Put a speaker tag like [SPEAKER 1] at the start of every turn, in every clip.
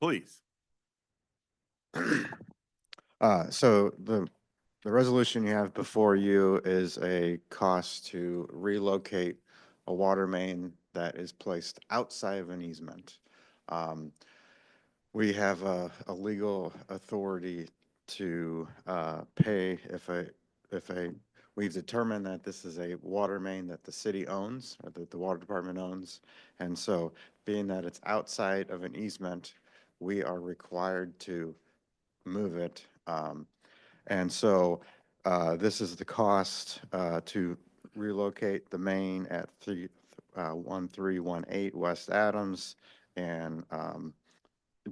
[SPEAKER 1] please.
[SPEAKER 2] Uh, so the, the resolution you have before you is a cost to relocate a water main that is placed outside of an easement. Um, We have a, a legal authority to, uh, pay if a, if a, we've determined that this is a water main that the city owns, or that the water department owns. And so being that it's outside of an easement, we are required to move it. Um, And so uh, this is the cost uh, to relocate the main at three, uh, 1318 West Adams. And um,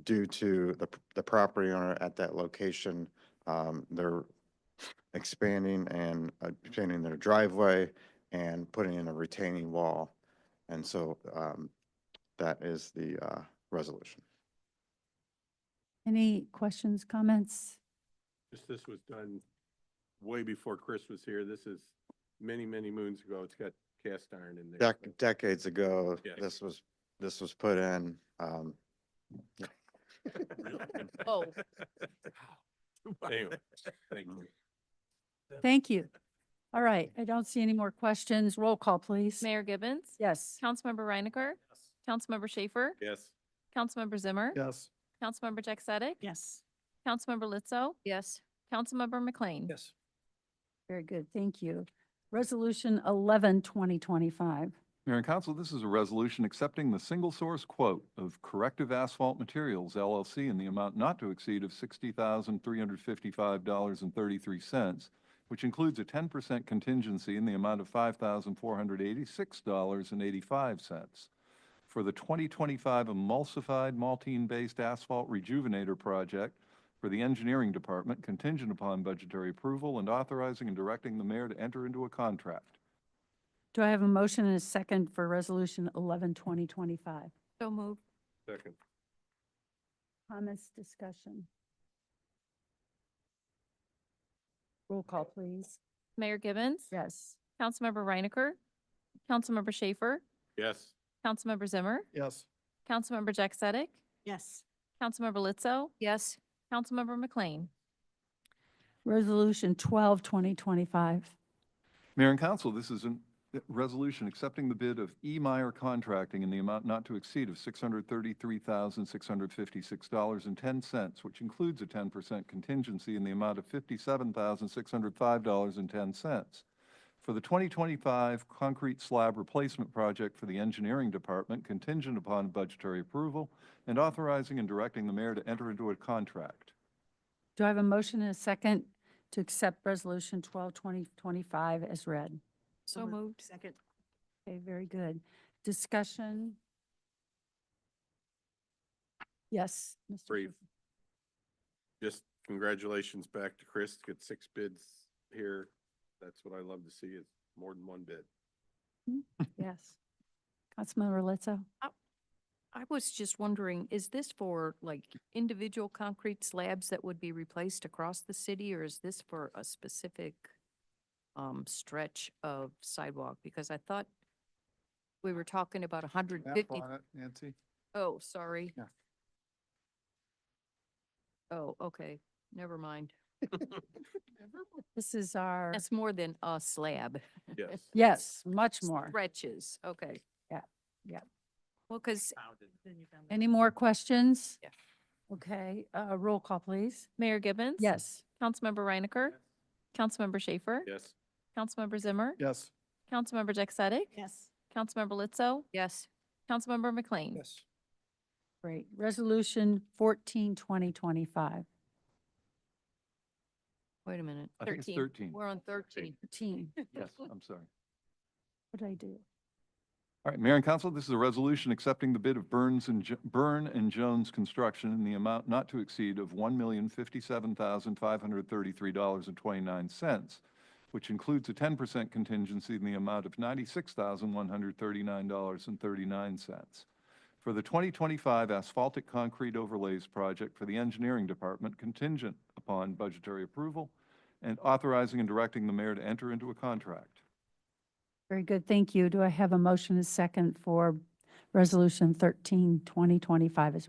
[SPEAKER 2] due to the, the property owner at that location, um, they're expanding and uh, expanding their driveway and putting in a retaining wall. And so um, that is the uh, resolution.
[SPEAKER 3] Any questions, comments?
[SPEAKER 4] This, this was done way before Chris was here. This is many, many moons ago. It's got cast iron in there.
[SPEAKER 2] Dec- decades ago,
[SPEAKER 4] Yeah.
[SPEAKER 2] this was, this was put in, um,
[SPEAKER 5] Oh.
[SPEAKER 4] Anyway, thank you.
[SPEAKER 3] Thank you. All right, I don't see any more questions. Roll call, please.
[SPEAKER 5] Mayor Gibbons?
[SPEAKER 3] Yes.
[SPEAKER 5] Councilmember Reinecker? Councilmember Schaefer?
[SPEAKER 4] Yes.
[SPEAKER 5] Councilmember Zimmer?
[SPEAKER 6] Yes.
[SPEAKER 5] Councilmember Jack Sadek?
[SPEAKER 7] Yes.
[SPEAKER 5] Councilmember Lizzo?
[SPEAKER 7] Yes.
[SPEAKER 5] Councilmember McLean?
[SPEAKER 6] Yes.
[SPEAKER 3] Very good, thank you. Resolution 11, 2025.
[SPEAKER 8] Mayor and Council, this is a resolution accepting the single source quote of Corrective Asphalt Materials LLC in the amount not to exceed of $60,355.33, which includes a 10% contingency in the amount of $5,486.85 for the 2025 emulsified maltine-based asphalt rejuvenator project for the Engineering Department contingent upon budgetary approval and authorizing and directing the mayor to enter into a contract.
[SPEAKER 3] Do I have a motion and a second for Resolution 11, 2025?
[SPEAKER 5] So move.
[SPEAKER 4] Second.
[SPEAKER 3] Comments, discussion? Roll call, please.
[SPEAKER 5] Mayor Gibbons?
[SPEAKER 3] Yes.
[SPEAKER 5] Councilmember Reinecker? Councilmember Schaefer?
[SPEAKER 4] Yes.
[SPEAKER 5] Councilmember Zimmer?
[SPEAKER 6] Yes.
[SPEAKER 5] Councilmember Jack Sadek?
[SPEAKER 7] Yes.
[SPEAKER 5] Councilmember Lizzo?
[SPEAKER 7] Yes.
[SPEAKER 5] Councilmember McLean?
[SPEAKER 3] Resolution 12, 2025.
[SPEAKER 8] Mayor and Council, this is a resolution accepting the bid of E. Meyer Contracting in the amount not to exceed of $633,656.10, which includes a 10% contingency in the amount of $57,605.10 for the 2025 concrete slab replacement project for the Engineering Department contingent upon budgetary approval and authorizing and directing the mayor to enter into a contract.
[SPEAKER 3] Do I have a motion and a second to accept Resolution 12, 2025 as read?
[SPEAKER 5] So moved.
[SPEAKER 7] Second.
[SPEAKER 3] Okay, very good. Discussion? Yes. Mr.
[SPEAKER 4] Brief.
[SPEAKER 3] Schaefer.
[SPEAKER 4] Just congratulations back to Chris. Get six bids here. That's what I love to see is more than one bid.
[SPEAKER 3] Yes. Councilmember Lizzo?
[SPEAKER 7] I was just wondering, is this for like individual concrete slabs that would be replaced across the city? Or is this for a specific um, stretch of sidewalk? Because I thought we were talking about a hundred fifty.
[SPEAKER 8] Nancy?
[SPEAKER 7] Oh, sorry.
[SPEAKER 8] Yeah.
[SPEAKER 7] Oh, okay, never mind.
[SPEAKER 3] This is our,
[SPEAKER 7] That's more than a slab.
[SPEAKER 4] Yes.
[SPEAKER 3] yes, much more.
[SPEAKER 7] Stretches, okay.
[SPEAKER 3] Yeah, yeah.
[SPEAKER 7] Well, because
[SPEAKER 3] Any more questions?
[SPEAKER 7] Yeah.
[SPEAKER 3] Okay, uh, roll call, please.
[SPEAKER 5] Mayor Gibbons?
[SPEAKER 3] Yes.
[SPEAKER 5] Councilmember Reinecker? Councilmember Schaefer?
[SPEAKER 4] Yes.
[SPEAKER 5] Councilmember Zimmer?
[SPEAKER 6] Yes.
[SPEAKER 5] Councilmember Jack Sadek?
[SPEAKER 7] Yes.
[SPEAKER 5] Councilmember Lizzo?
[SPEAKER 7] Yes.
[SPEAKER 5] Councilmember McLean?
[SPEAKER 6] Yes.
[SPEAKER 3] Great. Resolution 14, 2025.
[SPEAKER 7] Wait a minute.
[SPEAKER 8] I think it's 13.
[SPEAKER 7] We're on thirteen.
[SPEAKER 3] 13.
[SPEAKER 8] Yes, I'm sorry.
[SPEAKER 3] What did I do?
[SPEAKER 8] All right, Mayor and Council, this is a resolution accepting the bid of Burns and, Jo- Byrne and Jones Construction in the amount not to exceed of $1,057,533.29, which includes a 10% contingency in the amount of $96,139.39 for the 2025 asphaltic concrete overlays project for the Engineering Department contingent upon budgetary approval and authorizing and directing the mayor to enter into a contract.
[SPEAKER 3] Very good, thank you. Do I have a motion and a second for Resolution 13, 2025 as read?